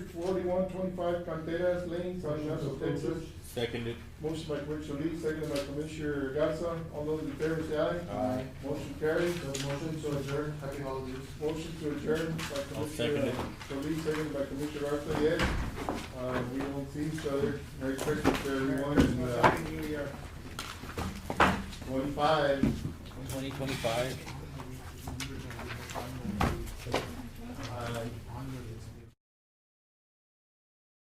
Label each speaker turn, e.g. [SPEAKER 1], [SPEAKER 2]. [SPEAKER 1] forty-one twenty-five Canteras Lane, San Antonio, Texas.
[SPEAKER 2] Seconded.
[SPEAKER 1] Motion by Commissioner Solis, seconded by Commissioner Gatsa. All those in favor say aye.
[SPEAKER 2] Aye.
[SPEAKER 1] Motion carries.
[SPEAKER 3] The motion to adjourn, happy holidays.
[SPEAKER 1] Motion to adjourn by
[SPEAKER 2] I'll second
[SPEAKER 1] Commissioner
[SPEAKER 2] it.
[SPEAKER 1] Solis, seconded by Commissioner Garza, yes. Uh, we won't see each other. Merry Christmas to everyone and, uh,
[SPEAKER 4] New Year.
[SPEAKER 1] twenty-five.
[SPEAKER 2] Twenty twenty-five.